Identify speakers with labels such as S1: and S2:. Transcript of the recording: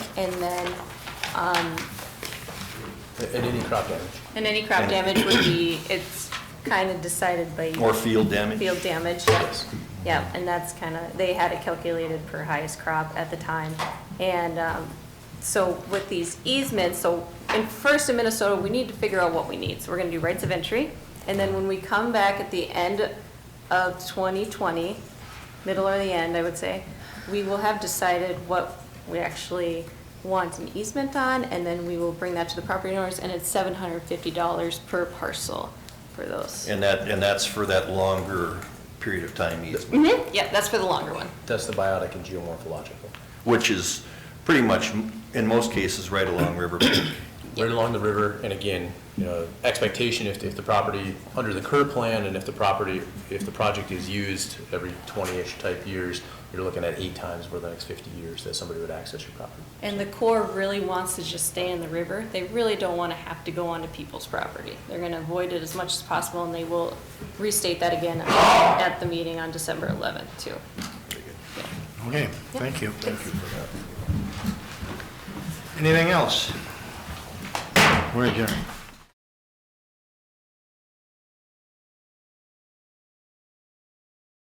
S1: and then, um,
S2: at any crop damage.
S1: and any crop damage would be, it's kind of decided by.
S3: Or field damage.
S1: Field damage, yep.
S3: Yes.
S1: Yep, and that's kind of, they had it calculated per highest crop at the time. And um, so with these easements, so in first in Minnesota, we need to figure out what we need. So we're going to do rights of entry. And then when we come back at the end of 2020, middle or the end, I would say, we will have decided what we actually want an easement on, and then we will bring that to the property owners, and it's $750 per parcel for those.
S3: And that, and that's for that longer period of time easement,
S1: Mhm, Yeah, that's for the longer one.
S2: That's the biotic and geomorphological.
S3: which is pretty much, in most cases, right along River Bank.
S2: Right along the river, and again, you know, expectation if, if the property, under the current plan, and if the property, if the project is used every twenty-ish type years, you're looking at eight times over the next fifty years that somebody would access your property.
S1: And the Corps really wants to just stay in the river. They really don't want to have to go onto people's property. They're going to avoid it as much as possible, and they will restate that again at the meeting on December 11th, too.
S4: Okay, thank you. Thank you for that. Anything else? We're adjourned.